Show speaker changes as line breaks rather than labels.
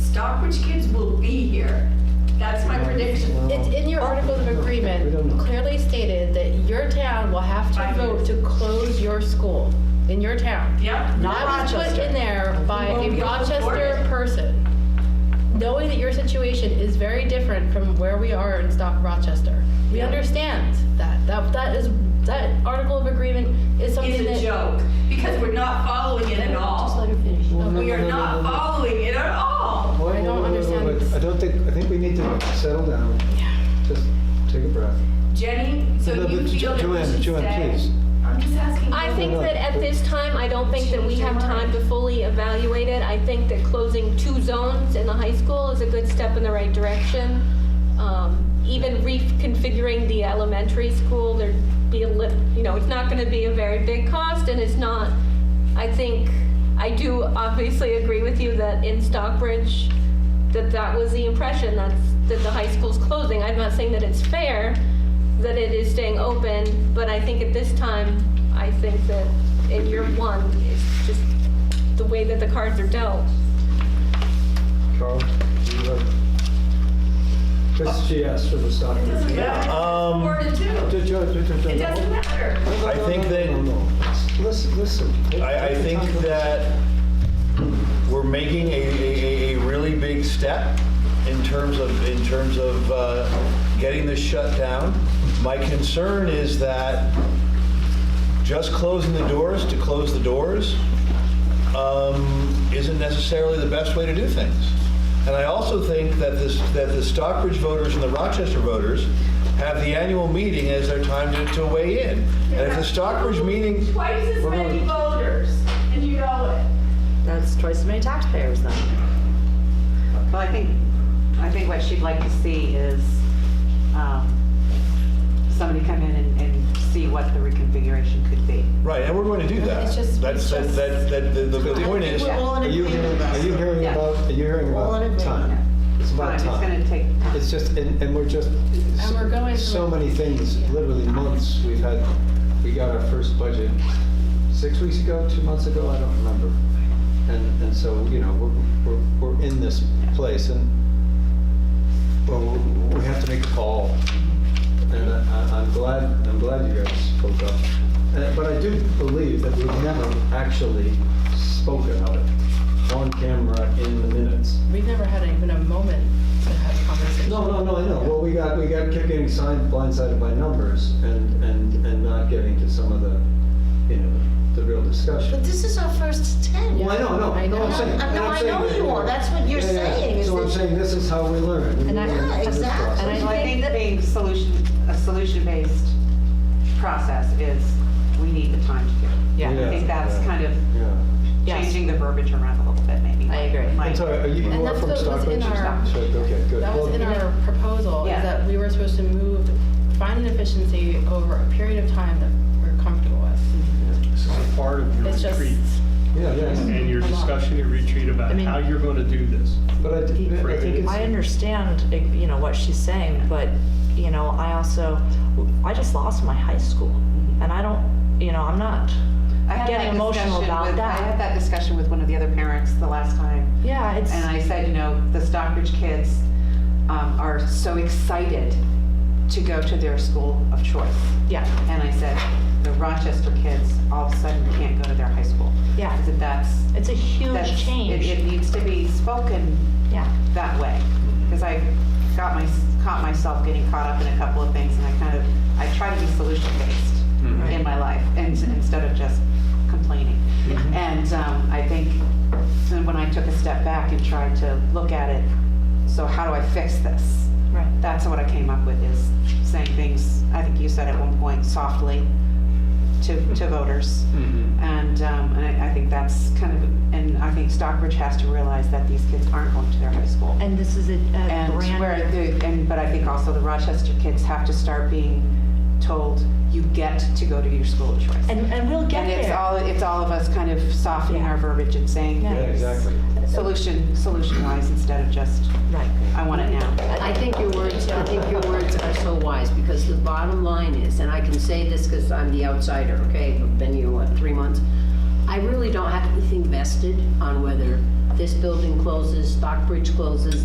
Stockbridge kids will be here. That's my prediction.
It's in your articles of agreement, clearly stated that your town will have to
Five
vote to close your school in your town.
Yep, not
That was put
Rochester.
in there by
Well,
a
we all
Rochester
supported.
person, knowing that your situation is very different from where we are in Stock Rochester. We
Yeah.
understand that, that, that is, that article of agreement is something
It's a
that.
joke, because we're not following it at
Just
all.
let her finish.
We are not following it at
Oh,
all.
I don't understand.
I don't think, I think we need to settle down, just take a breath.
Jenny, so
No,
you
but
feel that we
Joanne,
should
Joanne,
say?
please.
I'm just asking.
I think that at this time, I don't think that we have time to fully evaluate it. I think that closing two zones in the high school is a good step in the right direction. Um, Even reconfiguring the elementary school, there'd be a lit, you know, it's not gonna be a very big cost, and it's not, I think, I do obviously agree with you that in Stockbridge, that that was the impression, that's, that the high school's closing. I'm not saying that it's fair, that it is staying open, but I think at this time, I think that in year one, it's just the way that the cards are dealt.
Carl, do you have? Just, she asked for the stock.
It doesn't matter.
Um,
Four to two. It doesn't matter.
I think that-
Listen, listen.
I, I think that we're making a, a, a- a really big step in terms of, in terms of uh, getting this shut down. My concern is that just closing the doors to close the doors um, isn't necessarily the best way to do things. And I also think that this, that the Stockbridge voters and the Rochester voters have the annual meeting as their time to, to weigh in. And if the Stockbridge meeting,
Twice as many voters, and you know
That's twice as many taxpayers then.
Well, I think, I think what she'd like to see is um, somebody come in and- and see what the reconfiguration could be.
Right, and we're going to do that.
It's just-
That's,
it's
that,
just-
that, that, the, the the point is,
Yeah.
Are you hearing, are you hearing
Yeah.
about, are you hearing
All
about
in agreement.
time? It's
Time,
about
It's
time.
gonna take time.
It's just, and, and we're just,
And we're going
so
through-
many things, literally months, we've had, we got our first budget six weeks ago, two months ago, I don't remember. And, and so, you know, we're, we're, we're in this place and, well, we- we have to make a call. And I- I, I'm glad, I'm glad you guys spoke up. And- But I do believe that we've never actually spoken of it on camera in the minutes.
We've never had even a moment to have a conversation.
No, no, no, I know. Well, we got, we got kept getting signed, blindsided by numbers and, and, and not getting to some of the, you know, the real
But
discussion.
this is our first attempt.
Well, I know, no,
I
no, I'm
know.
saying.
No,
and I'm
I
saying
know
that-
you are. That's what you're
Yeah, yeah.
saying, is
So I'm
that-
saying this is how we learn. We
And I-
learn
Yeah,
through this
exactly.
process.
And I
So I
think
think
that-
being solution, a solution-based process is, we need the time to do it.
Yeah.
I think that's
yeah.
kind of
Yeah.
Yes.
changing the verbiage around a little bit, maybe.
I agree.
Might-
I'm sorry, are you,
And
you are
that's
from
what was
Stockbridge?
in our-
So, Okay, good.
That was
Well,
in our proposal, is
Yeah.
that we were supposed to move, find an efficiency over a period of time that we're comfortable with.
Mm-hmm.
This is a part of your
It's just,
retreat
Yeah, yeah.
and your
a lot.
discussion, your retreat
I
about
mean-
how you're going to do this.
But I, d- I think it's.
I understand, you know, what she's saying, but, you know, I also, I just lost my high school. And I don't, you know, I'm not,
I had
getting
that
emotional
discussion
about
with-
that.
I had that discussion with one of the other parents the last time.
yeah, it's,
And I said, you know, the Stockbridge kids um, are so excited to go to their school of choice.
yeah,
And I said, the Rochester kids all of a sudden can't go to their high school. I
yeah.
said, that's,
It's a huge
that's, it, it
change,
needs to be spoken
yeah.
that way. Because I got my, caught myself getting caught up in a couple of things and I kind of, I try to be solution based
Mm-hmm.
in my life and instead of just complaining.
Mm-hmm.
And um, I think then when I took a step back and tried to look at it, so how do I fix this?
Right.
That's what I came up with is saying things, I think you said at one point softly to, to voters. And, um, and I, I think that's kind of, and I think Stockbridge has to realize that these kids aren't going to their high school.
And this is a, a
And where,
brand,
the- and, but I think also the Rochester kids have to start being told, you get to go to your school of choice.
and, and we'll get
And it's
there.
all, it's all of us kind of softening our verbiage and saying
Yeah.
Yeah, exactly.
solution, solution-wise instead of just,
Right.
I want it now.
I think your words, I think your words are so wise, because the bottom line is, and I can say this because I'm the outsider, okay, I've been here, what, three months? I really don't have anything vested on whether
this building closes, Stockbridge closes,